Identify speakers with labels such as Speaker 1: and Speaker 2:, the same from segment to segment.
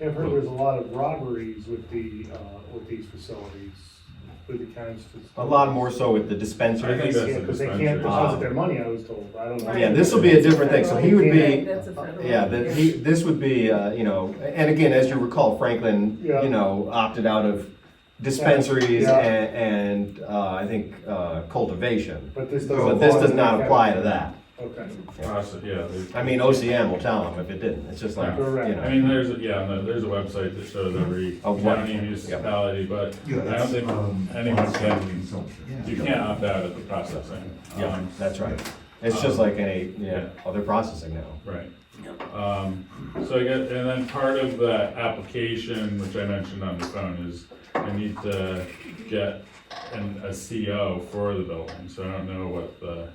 Speaker 1: I've heard there's a lot of robberies with the, uh, with these facilities, with the county's. fac-
Speaker 2: A lot more so with the dispensaries.
Speaker 3: I think that's
Speaker 1: Yeah,
Speaker 3: the
Speaker 1: because they can't
Speaker 3: dispensary.
Speaker 1: deposit their money, I was told, I don't know.
Speaker 2: Yeah, this will be a different thing, so he would be,
Speaker 4: That's a federal.
Speaker 2: yeah, that he, this would be, uh, you know, and again, as you recall, Franklin,
Speaker 1: Yeah.
Speaker 2: you know, opted out of dispensaries
Speaker 1: Yeah.
Speaker 2: and, and, uh, I think, uh, cultivation.
Speaker 1: But this doesn't.
Speaker 2: But this
Speaker 1: fall
Speaker 2: does
Speaker 1: under
Speaker 2: not
Speaker 1: that
Speaker 2: apply to
Speaker 1: category.
Speaker 2: that.
Speaker 1: Okay,
Speaker 3: Process- yeah. they-
Speaker 2: I mean, OCM will tell them if it didn't, it's just like, you
Speaker 1: Correct.
Speaker 3: I
Speaker 2: know.
Speaker 3: mean, there's, a yeah, no, there's a website that shows every
Speaker 2: Of what?
Speaker 3: county municipality, but I
Speaker 5: Yeah,
Speaker 3: don't
Speaker 5: that's,
Speaker 3: think
Speaker 5: um,
Speaker 3: anyone can,
Speaker 5: consumption.
Speaker 3: you can't opt out of the processing.
Speaker 2: Yeah,
Speaker 3: Um,
Speaker 2: that's right. It's just like any, yeah,
Speaker 3: Yeah.
Speaker 2: other processing now.
Speaker 3: Right. Um, so I guess, and then part of the application, which I mentioned on the phone, is I need to get an, a CO for the building, so I don't know what the,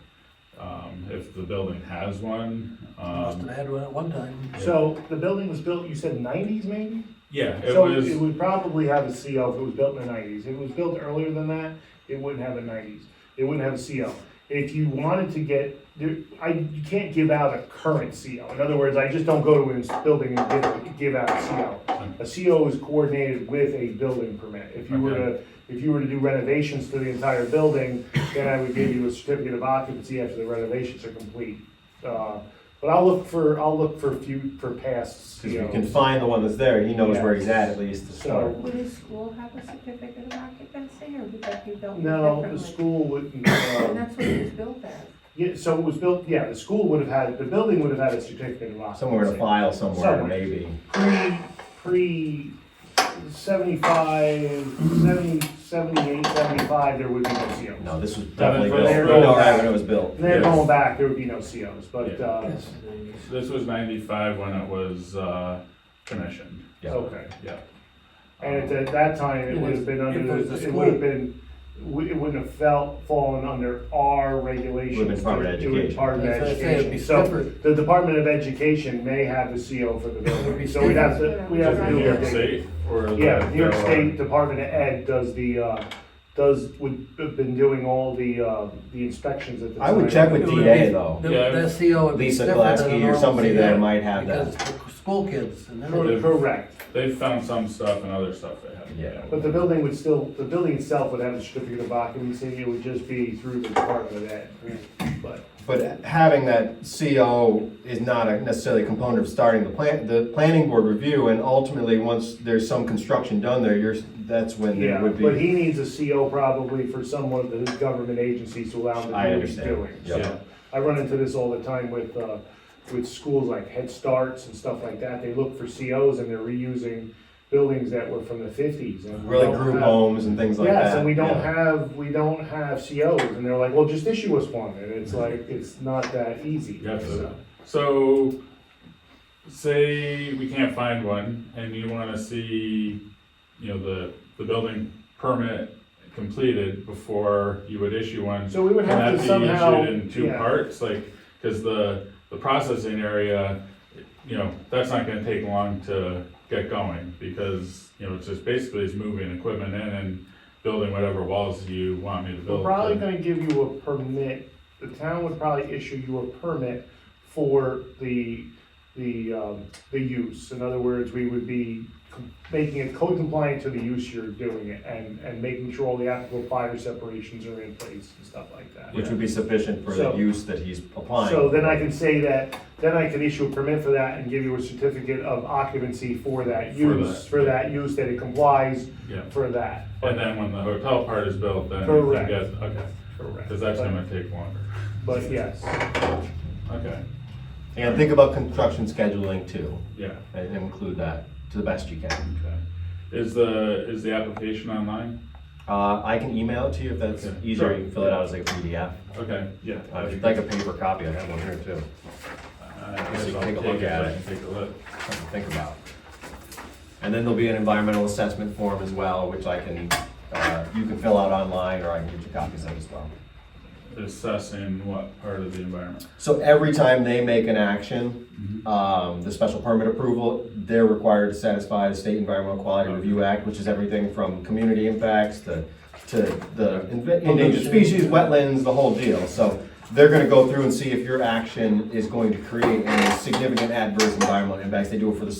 Speaker 3: um, if the building has one.
Speaker 6: Must
Speaker 3: Um,
Speaker 6: have had one at one time.
Speaker 1: so the building was built, you said nineties maybe?
Speaker 3: yeah, it
Speaker 1: So
Speaker 3: was,
Speaker 1: it would probably have a CO if it was built in the nineties. If it was built earlier than that, it wouldn't have a nineties. It wouldn't have a CO. If you wanted to get, there, I, you can't give out a current CO. In other words, I just don't go to a building and give, give out a CO. A CO is coordinated with a building permit. If you were to, if you were to do renovations to the entire building, then I would give you a certificate of occupancy after the renovations are complete. Uh, But I'll look for, I'll look for few, for past
Speaker 2: Cause if you
Speaker 1: COs.
Speaker 2: can find the one that's there, he knows where
Speaker 1: Yeah.
Speaker 2: he's at at least to start.
Speaker 1: So-
Speaker 4: Would a school have a certificate of occupancy or would that be built
Speaker 1: No,
Speaker 4: differently?
Speaker 1: the school wouldn't,
Speaker 4: And
Speaker 1: um,
Speaker 4: that's what it was built as.
Speaker 1: yeah, so it was built, yeah, the school would have had, the building would have had a certificate of occupancy.
Speaker 2: Somewhere to file somewhere,
Speaker 1: Somewhere.
Speaker 2: maybe.
Speaker 1: Pre, pre seventy-five, seventy, seventy-eight, seventy-five, there would be no COs.
Speaker 2: No, this was definitely
Speaker 3: for
Speaker 2: built,
Speaker 1: their
Speaker 2: you know,
Speaker 1: own-
Speaker 2: right when it was built.
Speaker 1: And then
Speaker 3: Yes.
Speaker 1: going back, there would be no COs, but,
Speaker 3: Yeah.
Speaker 1: uh,
Speaker 6: Yes, in the 90s.
Speaker 3: this was ninety-five when it was, uh, commissioned,
Speaker 2: Yeah.
Speaker 1: okay.
Speaker 3: yeah.
Speaker 1: And at that time, it
Speaker 6: It
Speaker 1: would have
Speaker 6: is-
Speaker 1: been
Speaker 6: it
Speaker 1: under,
Speaker 6: was the
Speaker 1: the- it would have
Speaker 6: school.
Speaker 1: been, it wouldn't have felt, fallen under our regulations.
Speaker 2: part of
Speaker 1: to do it
Speaker 2: education.
Speaker 1: Part of
Speaker 6: That's what I say, it'd be
Speaker 1: education, so
Speaker 6: separate.
Speaker 1: the Department of Education may have the CO for the
Speaker 6: would
Speaker 1: building,
Speaker 6: be
Speaker 1: so we'd have to, we
Speaker 4: Yeah,
Speaker 1: have
Speaker 3: Is
Speaker 1: to
Speaker 3: it
Speaker 4: but
Speaker 1: do
Speaker 3: New
Speaker 4: I
Speaker 3: York
Speaker 4: think-
Speaker 1: it.
Speaker 3: State or?
Speaker 1: Yeah,
Speaker 3: the-
Speaker 1: New York
Speaker 3: or-
Speaker 1: State Department of Ed does the, uh, does, would, have been doing all the, uh, the inspections at the time.
Speaker 2: I would check with
Speaker 6: It would be-
Speaker 2: DA though.
Speaker 6: the-
Speaker 3: Yeah.
Speaker 6: That CO would be
Speaker 2: Lisa
Speaker 6: different than a
Speaker 2: Glatzky or
Speaker 6: normal
Speaker 2: somebody
Speaker 6: CO,
Speaker 2: there might have that.
Speaker 6: Because it's for school kids and they're.
Speaker 1: Cor- Correct,
Speaker 3: They've found some stuff and other stuff they haven't.
Speaker 2: Yeah.
Speaker 3: yet.
Speaker 1: but the building would still, the building itself would have a certificate of occupancy, it would just be through the Department of Ed, but.
Speaker 2: But having that CO is not a necessarily a component of starting the plan, the planning board review, and ultimately, once there's some construction done there, you're, that's when there
Speaker 1: Yeah,
Speaker 2: would
Speaker 1: but
Speaker 2: be.
Speaker 1: he needs a CO probably for some of the government agencies to allow him to
Speaker 2: I
Speaker 1: do what he's
Speaker 2: understand.
Speaker 1: doing.
Speaker 2: Yeah.
Speaker 3: Yeah.
Speaker 1: I run into this all the time with, uh, with schools like Head Starts and stuff like that. They look for COs and they're reusing buildings that were from the fifties.
Speaker 2: Really group homes and things like that.
Speaker 1: Yes, and we don't
Speaker 2: yeah.
Speaker 1: have, we don't have COs, and they're like, well, just issue us one, and it's like, it's not that easy.
Speaker 3: Yeah,
Speaker 1: So,
Speaker 3: so- So, say we can't find one and you wanna see, you know, the, the building permit completed before you would issue one.
Speaker 1: So we would
Speaker 3: Can
Speaker 1: have
Speaker 3: that
Speaker 1: to
Speaker 3: be
Speaker 1: somehow.
Speaker 3: issued in two
Speaker 1: yeah.
Speaker 3: parts? Like, cause the, the processing area, you know, that's not gonna take long to get going because, you know, it's just basically it's moving equipment in and building whatever walls you want me to
Speaker 1: We're
Speaker 3: build.
Speaker 1: probably gonna give you a permit, the town would probably issue you a permit for the, the, um, the use. In other words, we would be com- making it code compliant to the use you're doing it and, and making sure all the applicable fire separations are in place and stuff like that.
Speaker 2: Which would be sufficient for the
Speaker 1: So-
Speaker 2: use that he's applying.
Speaker 1: So then I can say that, then I can issue a permit for that and give you a certificate of occupancy for that
Speaker 3: For
Speaker 1: use,
Speaker 3: that.
Speaker 1: for that use, that it complies
Speaker 3: Yeah.
Speaker 1: for that.
Speaker 3: And then when the hotel part is built, then you
Speaker 1: Correct.
Speaker 3: guys, okay,
Speaker 1: Correct.
Speaker 3: because that's gonna take longer,
Speaker 1: But but yes,
Speaker 3: okay,
Speaker 2: And think about construction scheduling too,
Speaker 3: yeah,
Speaker 2: and include that to the best you can.
Speaker 3: okay. Is the, is the application online?
Speaker 2: Uh, I can email it to you if that's
Speaker 3: Okay.
Speaker 2: easier, you
Speaker 3: Sure.
Speaker 2: can fill it out as a PDF.
Speaker 3: Okay, yeah.
Speaker 2: Uh, If you'd like a paper copy, I have one here too,
Speaker 3: I
Speaker 2: So
Speaker 3: guess
Speaker 2: you
Speaker 3: I'll
Speaker 2: take a
Speaker 3: take
Speaker 2: look
Speaker 3: it,
Speaker 2: at
Speaker 3: I
Speaker 2: it.
Speaker 3: can take a look.
Speaker 2: something to think about. And then there'll be an environmental assessment form as well, which I can, uh, you can fill out online, or I can get you copies of as well.
Speaker 3: Assessing what part of the environment?
Speaker 2: So every time they make an action, um, the special permit approval, they're required to satisfy the State Environmental Quality Review Act, which is everything from community impacts to, to the inve- endangered species, wetlands, the whole deal. So they're gonna go through and see if your action is going to create any significant adverse environmental impacts. They do it for the